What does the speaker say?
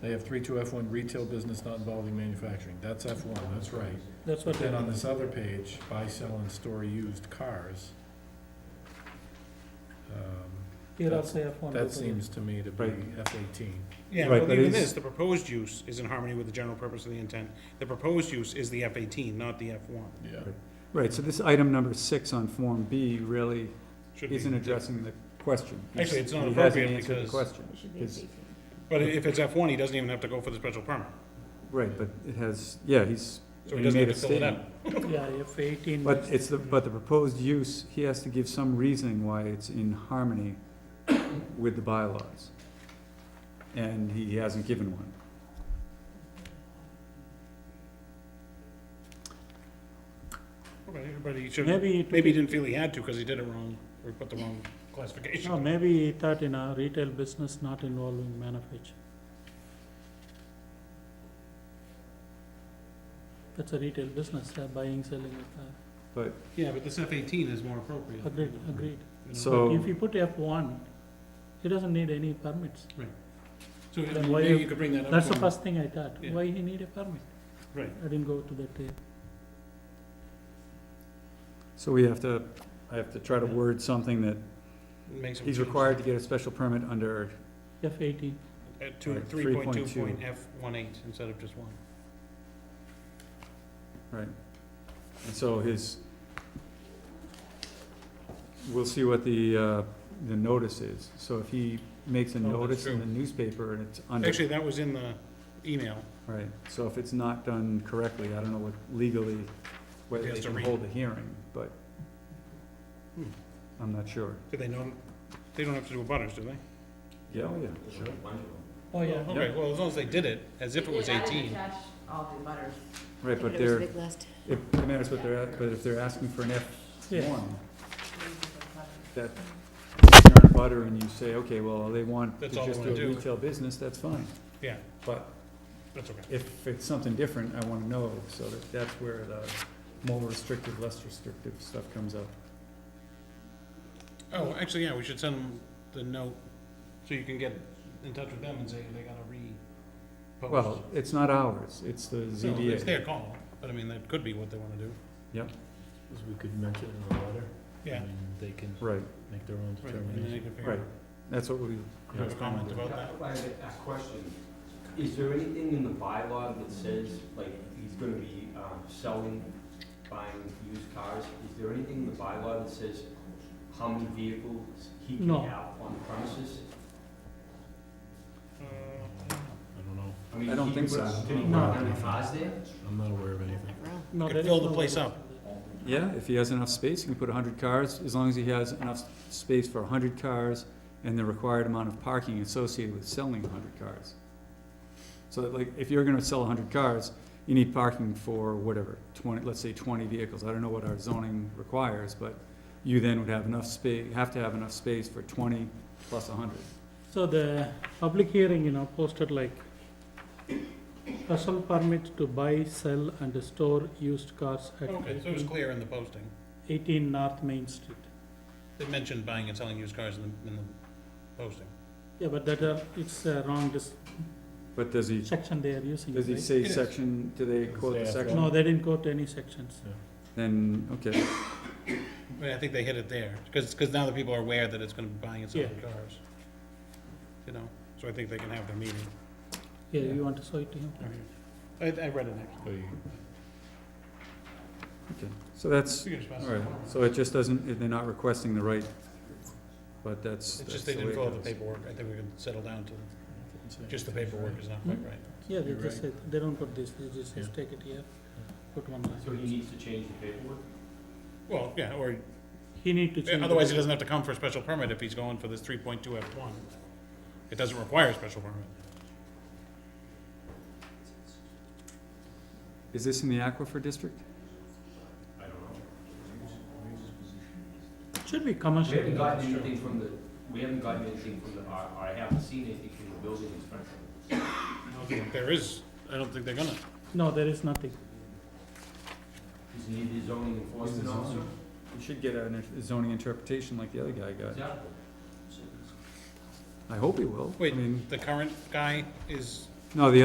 They have three two F one retail business not involving manufacturing. That's F one, that's right. That's what But they, then on this other page, buy, sell, and store used cars. um, here also F one. That seems to me to be Right. F eighteen. Yeah, Right, well, but even it's- this, the proposed use is in harmony with the general purpose of the intent. The proposed use is the F eighteen, not the F one. Yeah. Right, so this item number six on Form B really isn't addressing the question. Actually, it's not He hasn't appropriate answered the because- question. It should be a It's- big But if it's F one, he doesn't even have to go for the special permit, Right, but it has, yeah, he's, he so he doesn't made have a to fill it out. statement. Yeah, F eighteen. But it's the, but the proposed use, he has to give some reasoning why it's in harmony with the bylaws. And he hasn't given one. Okay, Everybody should, Maybe it. maybe he didn't feel he had to because he did it wrong, or put the wrong No, classification. maybe he thought in a retail business not involving manufacturing. That's a retail business, uh, buying, selling a Yeah, but this F eighteen is more appropriate. car. Agreed, agreed. you know? So- If you put F one, he doesn't need any permits. So I then mean, why maybe you- you could bring that up. That's the to him. first thing I thought. Yeah. Why he need a permit? Right. I didn't go to that. uh, So we have to, I have to try to word something that Makes him he's change. required to get a special permit under F eighteen, At two, Right, three point two 3.2. point F one eight instead of just one. Right. And so his, we'll see what the, uh, the notice is. So if he makes a Oh, that's notice in true. the newspaper and it's under, Actually, that was in the email. right, so if it's not done correctly, I don't know what legally, He whether has they to can read. hold a hearing, but Hmm. I'm not sure. Do they know, they don't have to do a butters, do they? Yeah, oh, yeah. oh yeah. Okay, well, as long as they did it, as if it was eighteen. attach all the butters. Right, but It was they're, big list. it it matters what they're, at- but if they're asking for an F Yeah. one, that, if you're on butter and you say, okay, well, they want to That's all I just do wanna a do. retail business, that's fine. Yeah, But that's okay. if it's something different, I wanna know, so that, that's where the more restrictive, less restrictive stuff comes up. Oh, actually, yeah, we should send them the note, so you can get in touch with them and say they gotta re-post. Well, it's not ours, it's the No, It's ZBA. their call, but I mean, that could be what they wanna do. Because we could mention it in the letter. Yeah, And they can Right, make their own right, and then they determination. can figure right, out. that's what we. Do you have a comment about that? I have a a question. Is there anything in the bylaw that says, like, he's gonna be um, selling, buying used cars? Is there anything in the bylaw that says how many vehicles he can No. have on the premises? Uh, I don't know. mean, I don't he think would- so. Did he No. want any cars there? I'm not aware of anything. No, Could there is fill the no place butters up. there. Yeah, if he has enough space, he can put hundred cars, as long as he has enough s- space for hundred cars and the required amount of parking associated with selling hundred cars. So that, like, if you're gonna sell hundred cars, you need parking for whatever, twenty, let's say twenty vehicles, I don't know what our zoning requires, but you then would have enough spa, have to have enough space for twenty plus hundred. So the public hearing, you know, posted like special permit to buy, sell and store used cars at Okay, so it was clear in the posting. eighteen North Main Street. They mentioned buying and selling used cars in the, in the posting. Yeah, but that are, it's a wrong dis- But does he, section they are using, does he right? say It is. section, do they quote the Say after. section? No, they didn't quote any sections. Then, okay, I mean, I think they hit it there, because, now the people are aware that it's gonna be buying and selling cars. You know, so I think they can have their meeting. Yeah, you want to show it to him? I, I read it next. So you- so that's, You can just pass All it right, along. so it just doesn't, they're not requesting the right, but that's. It's that's just they the didn't way it fill out the goes. paperwork, I think we can settle down to, just the paperwork is not quite Mm-hmm. Hmm? right. Yeah, they You're just said, they don't put this, they just Yeah. just take it here, put one line. So he needs to change the paperwork? Well, yeah, or, He need to change. otherwise he it. doesn't have to come for a special permit if he's going for this three point two F one. It doesn't require a special permit. Is this in the aquifer district? I don't know. Should be We haven't commercial. gotten anything from the, we haven't gotten anything from the, or or I haven't seen anything from the building inspector. I don't think There is, I don't think they're gonna. No, there is nothing. Is he the zoning enforcement zoning. officer? You should get a zoning interpretation like the other guy got. Exactly. I hope he will. I Wait, mean, the current guy is No, the